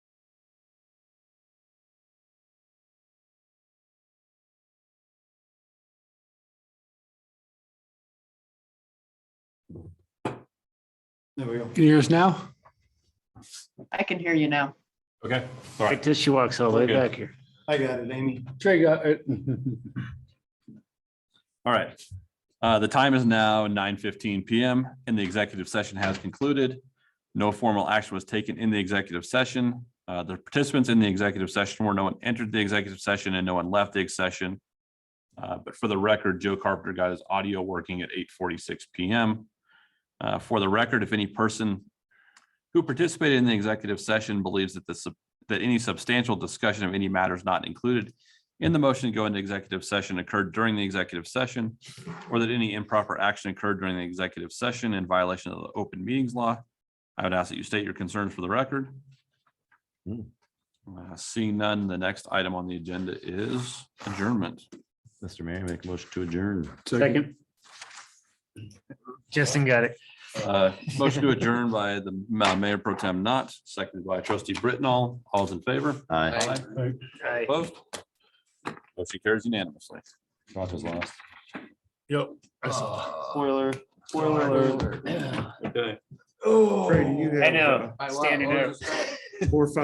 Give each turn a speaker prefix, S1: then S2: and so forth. S1: There we go.
S2: Can you hear us now?
S3: I can hear you now.
S4: Okay, all
S5: Like
S4: right.
S5: this, she walks all the way
S4: We're good.
S5: back here.
S1: I got it, Amy.
S2: Trey got it.
S4: All right. Uh, The time is now nine fifteen PM and the executive session has concluded. No formal action was taken in the executive session. Uh, The participants in the executive session were no one entered the executive session and no one left the ex- session. Uh, But for the record, Joe Carpenter got his audio working at eight forty-six PM. Uh, For the record, if any person who participated in the executive session believes that the, sub- that any substantial discussion of any matters not included in the motion to go into executive session occurred during the executive session, or that any improper action occurred during the executive session in violation of the open meetings law. I would ask that you state your concerns for the record. Uh, Seeing none, the next item on the agenda is adjournment.
S6: Mr. Mayor, make a motion to adjourn.
S5: Second. Justin got it.
S4: Uh, Motion to adjourn by the Ma- Mayor Pro Tem Not, seconded by trustee Britnall. All's in favor?
S6: Aye.
S5: Aye.
S4: Opposed? Motion carries unanimously. Roger's last.
S1: Spoiler, Oh. spoiler alert.
S4: Okay.
S1: Brady, you have, uh,
S5: I know, standing up.
S1: Four, five